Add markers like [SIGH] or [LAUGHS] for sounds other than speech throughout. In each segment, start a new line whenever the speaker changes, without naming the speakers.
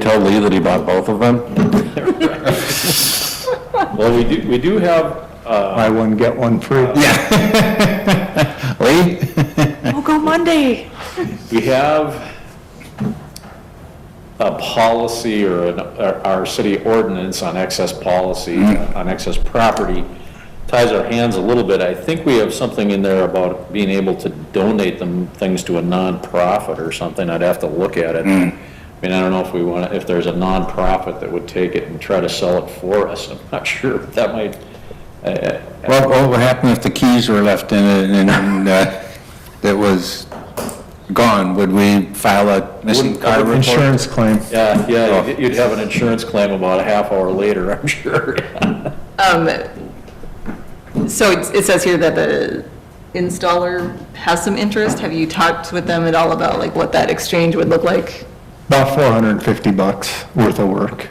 tell Lee that he bought both of them?
Well, we do, we do have, uh,
Buy one, get one free.
Lee?
Oh, go Monday.
we have a policy or an- our our city ordinance on excess policy, on excess property, ties our hands a little bit. I think we have something in there about being able to donate them, things to a nonprofit or something. I'd have to look at it. I mean, I don't know if we want, if there's a nonprofit that would take it and try to sell it for us. I'm not sure. That might,
Well, what would happen if the keys were left in it and, and, uh, it was gone? Would we file a missing
Wouldn't-
car report?
Insurance claim.
yeah, yeah, you'd- you'd have an insurance claim about a half hour later, I'm sure. [LAUGHS]
Um, So it's- it says here that the installer has some interest. Have you talked with them at all about like what that exchange would look like?
About 450 bucks worth of work.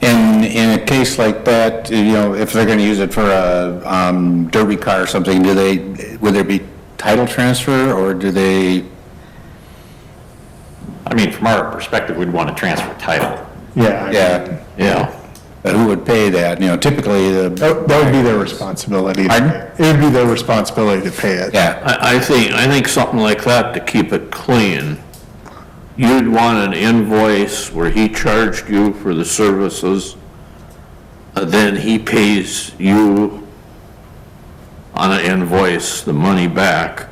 In, in a case like that, you know, if they're gonna use it for a, um, derby car or something, do they, would there be title transfer or do they?
I mean, from our perspective, we'd want to transfer title.
Yeah.
Yeah,
Yeah.
but who would pay that? You know, typically the,
That that would be their responsibility. to
Pardon?
pay. It would be their responsibility to pay it.
yeah,
I, I think, I think something like that to keep it clean. You'd want an invoice where he charged you for the services, uh, then he pays you on an invoice the money back.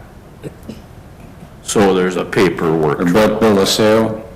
So there's a paperwork
or bill, bill of sale.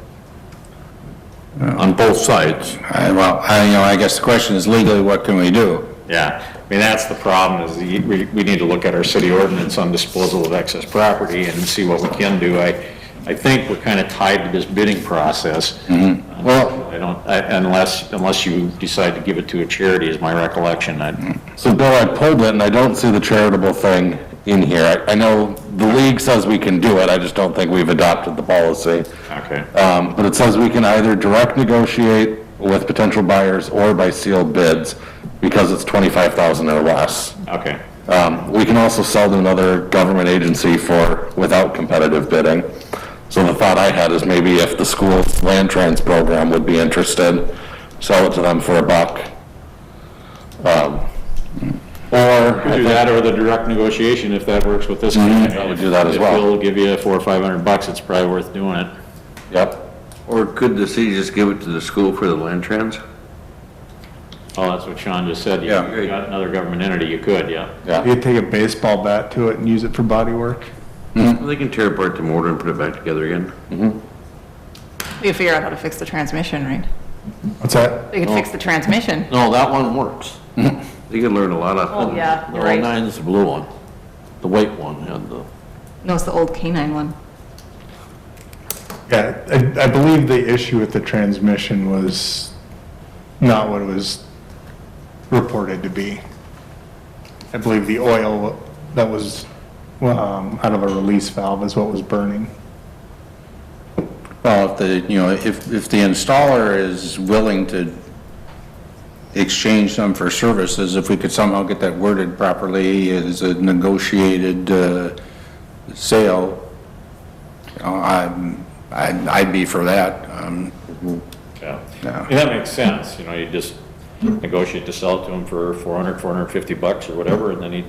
on both sides.
I, well, I, you know, I guess the question is legally, what can we do?
Yeah, I mean, that's the problem, is the- we, we need to look at our city ordinance on disposal of excess property and see what we can do. I, I think we're kind of tied to this bidding process.
Mm-hmm.
Well-
I don't, I- unless, unless you decide to give it to a charity, is my recollection. I-
So Bill, I pulled it and I don't see the charitable thing in here. I, I know the league says we can do it, I just don't think we've adopted the policy.
Okay.
Um, but it says we can either direct negotiate with potential buyers or by sealed bids because it's twenty-five thousand or less.
Okay,
Um, we can also sell to another government agency for, without competitive bidding. So the thought I had is maybe if the school's land trans program would be interested, sell it to them for a buck. Um, Or,
do that or the direct negotiation if that works with this. guy.
I would do that as well.
If he'll give you four or 500 bucks, it's probably worth doing it.
yep,
Or could the city just give it to the school for the land trans?
Oh, that's what Sean just said. You
Yeah.
you got another government entity, you could, yeah.
You could take a baseball bat to it and use it for body work.
They can tear apart the mortar and put it back together again.
We could figure out how to fix the transmission, right?
What's that?
We could fix the transmission.
No, that one works.
[LAUGHS] They can learn a lot off
Oh,
of them.
yeah,
The
you're
oh
right.
nine's the blue one. The white one had the,
No, it's the old K-9 one.
Yeah, I, I believe the issue with the transmission was not what it was reported to be. I believe the oil that was, um, out of a release valve is what was burning.
Well, if the, you know, if, if the installer is willing to exchange them for services, if we could somehow get that worded properly as a negotiated, uh, sale, you know, I'm, I'd, I'd be for that. Um,
Yeah,
Yeah.
Yeah, that makes sense, you know, you just negotiate to sell it to him for 400, 450 bucks or whatever, and then he,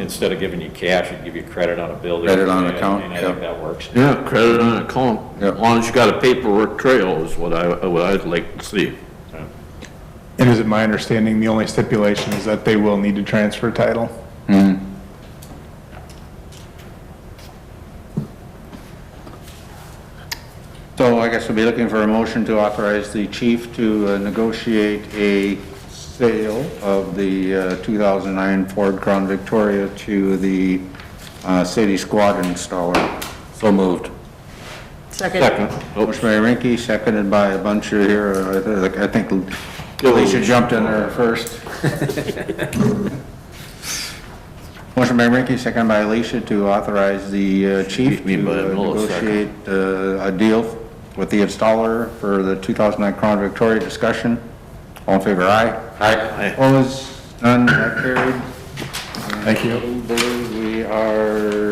instead of giving you cash, he'd give you credit on a bill. that you
Credit on
pay,
account,
and I
yeah.
think that works.
yeah, credit on account.
Yeah.
As long as you got a paperwork trail is what I, what I'd like to see.
And is it my understanding, the only stipulation is that they will need to transfer title?
So I guess we'll be looking for a motion to authorize the chief to uh, negotiate a sale of the uh, 2009 Ford Crown Victoria to the uh, city squad installer.
so moved.
Second.
Motion by Rinky, seconded by a bunch of here, uh, I think Alicia jumped in there
[LAUGHS]
first. Motion by Rinky, seconded by Alicia to authorize the uh, chief
Beat me by a
to uh,
millisecond.
negotiate uh, a deal with the installer for the 2009 Crown Victoria discussion. All in favor, aye? Aye. Opposed? None, that carried. Thank you. We are